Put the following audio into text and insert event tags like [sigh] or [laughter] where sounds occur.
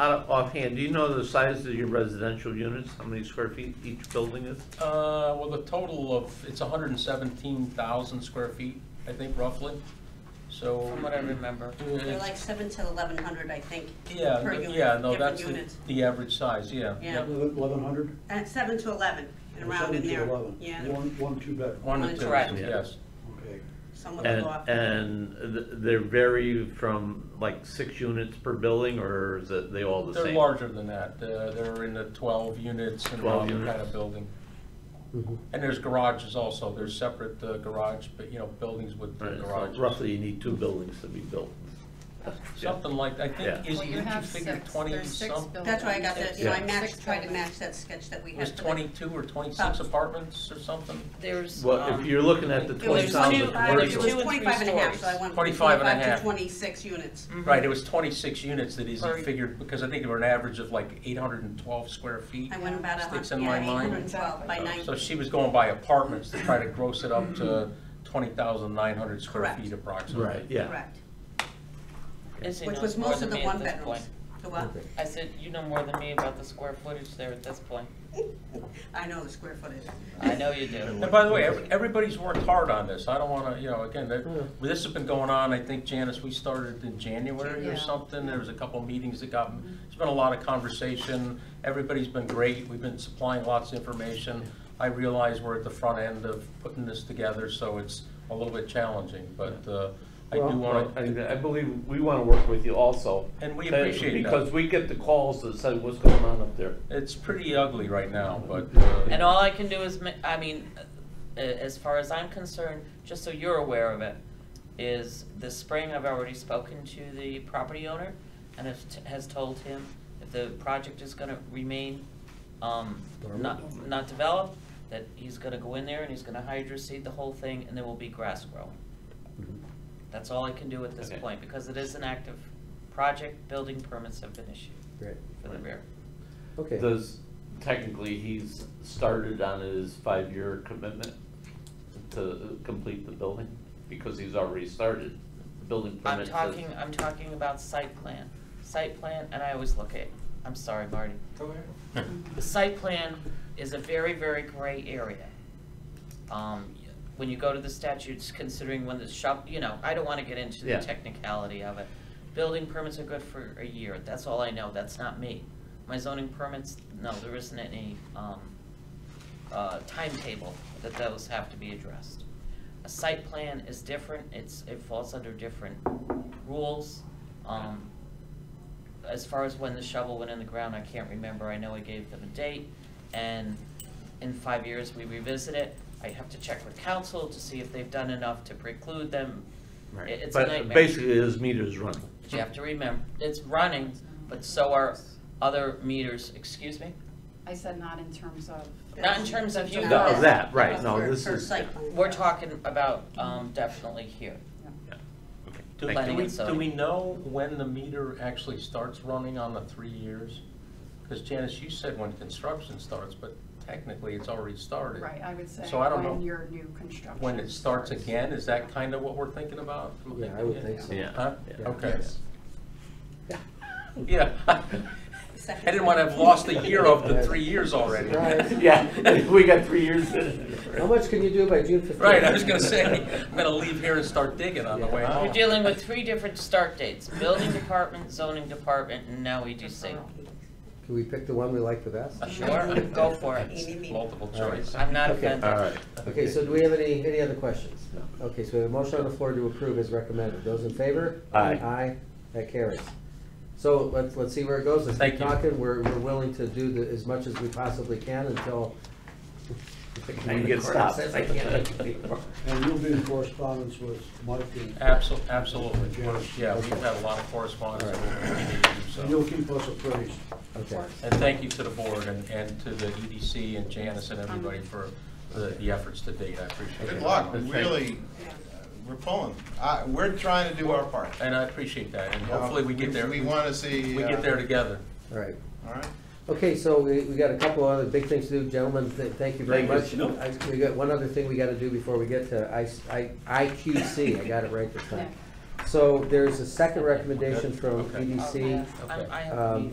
Out of offhand, do you know the size of your residential units, how many square feet each building is? Uh, well, the total of, it's hundred and seventeen thousand square feet, I think roughly, so. from what I remember. Yeah. They're like seven to eleven hundred, I think, Yeah, per no- unit, yeah, no, different that's the, units. the average size, yeah. Yeah, Eleven hundred? and seven to eleven, and around in there, yeah, One, one, two bedroom, One and two, Correct. yes. okay. some of them And, go up. and th- they vary from like six units per building, or is it, they all the same? They're larger than that, Uh, they're in the twelve units and 12 all that kind units. Mm-hmm. of building. And there's garages also, there's separate uh, garage, but, you know, buildings with uh, Right, so garages. Roughly, you need two buildings to be built. Something like, I think, Yeah. is, Well, didn't you you have figure six, twenty there's six some? buildings. That's why I got that, you know, I Yeah. matched, Six tried to buildings. match that sketch that we It had. was for the- twenty-two or twenty-six About- apartments or something? There's. Well, if um, you're looking at the It was twenty two- thousand. I- It was Two and three twenty-five uh, and a half, so I stories. went from 25 and a twenty-five half. Mm. to twenty-six units. Right, it was twenty-six units that is Sorry. figured, because I think they were an average of like eight hundred and twelve square feet. I went about a Sticks hundred, in my yeah, eight mind. hundred and twelve by nine. So she was going by apartments to try to gross it up to twenty thousand nine hundred square Correct. feet approximately. Right, yeah. Correct, as you which know, was it's more most than of the me at one this bedrooms. point. The what? I said, you know more than me about the square footage there at this point. I know the square footage. I know you [laughs] do. And by the way, every- everybody's worked hard on this. I don't want to, you know, again, that- this has been going on, I think, Janice, we started in January Yeah. or something. There was a couple meetings that got, Mm-hmm. there's been a lot of conversation. Everybody's been great. We've been supplying lots of information. I realize we're at the front end of putting this together, so it's a little bit challenging, but uh, I do want to, I believe we want to work with you also. And we That- appreciate that. Because we get the calls that say, what's going on up there? it's pretty ugly right now, but. uh, And all I can do is, ma- I mean, uh, as far as I'm concerned, just so you're aware of it, is this spring I've already spoken to the property owner and has, has told him if the project is gonna remain, um, not, not developed, that he's gonna go in there and he's gonna hydro seed the whole thing and there will be grass growing. That's all I can do at this Okay. point, because it is an active project, building permits have been issued Great, for the rear. okay. Does, technically, he's started on his five-year commitment to complete the building? Because he's already started, the building I'm permit says. talking, I'm talking about site plan, site plan, and I always look at, I'm sorry, Marty. The site plan is a very, very gray area. Um, when you go to the statutes, considering when the shop, you know, I don't wanna get into the Yeah. technicality of it. Building permits are good for a year, that's all I know, that's not me. My zoning permits, no, there isn't any, um, uh, timetable that those have to be addressed. A site plan is different, it's, it falls under different rules. Um, as far as when the shovel went in the ground, I can't remember, I know I gave them a date, and in five years, we revisit it. I have to check with council to see if they've done enough to preclude them. Right. It- It's a But nightmare. basically, his meter's running. But you have to remember, it's running, but so are other meters, excuse me? I said not in terms of. Not in terms of you No, guys. Of that, right, no, For- this for is. site plan. We're talking about, um, definitely here. Okay, thank Do do you. we, Planning and do we know when the meter actually starts running on the three years? Because Janice, you said when construction starts, but technically it's already started. Right, I would say So I don't know when your new construction. When it starts again, is that kind of what we're thinking about? Yeah, I would think so. Yeah. Huh? Yeah. Okay. Yeah. Yeah. [laughs] I didn't want to have lost a year of the three years already. [laughs] Right. Yeah, [laughs] we got three years in it. How much can you do by June fifteenth? Right, I was going to say, I'm going to leave here and start digging on the way Yeah. home. You're dealing with three different start dates, building department, zoning department, and now EDC. Can we pick the one we like the best? Sure, go for [laughs] it. Multiple choice. I'm not Okay. offended. All right. Okay, so do we have any, any other questions? No. Okay, so we have a motion on the floor to approve as recommended. Those in favor? Aye. Aye, that carries. So let's, let's see where it goes. Let's keep Thank you. talking. We're, we're willing to do the, as much as we possibly can until. And you get stopped. Says I can't make it anymore. And you'll be in correspondence with Mike and. Absol- Absolutely. We're- Yeah, we've had a lot of correspondence. All So- And you'll keep us appraised. Okay. And thank you to the board and, and to the EDC and Janice and everybody for the, the efforts to date, I appreciate it. Good luck, Thank- really, we're pulling. I- We're trying to do our part. And I appreciate that, and hopefully we get there, We we want to see. uh, get there together. All right. All right. Okay, so we, we got a couple other big things to do, gentlemen, th- thank you very much. Thank you. I- We got one other thing we gotta do before we get to I, I, IQC, I got it right this time. So there's a second recommendation from E Okay. EDC. Oh, I'm- I have a Um, meeting.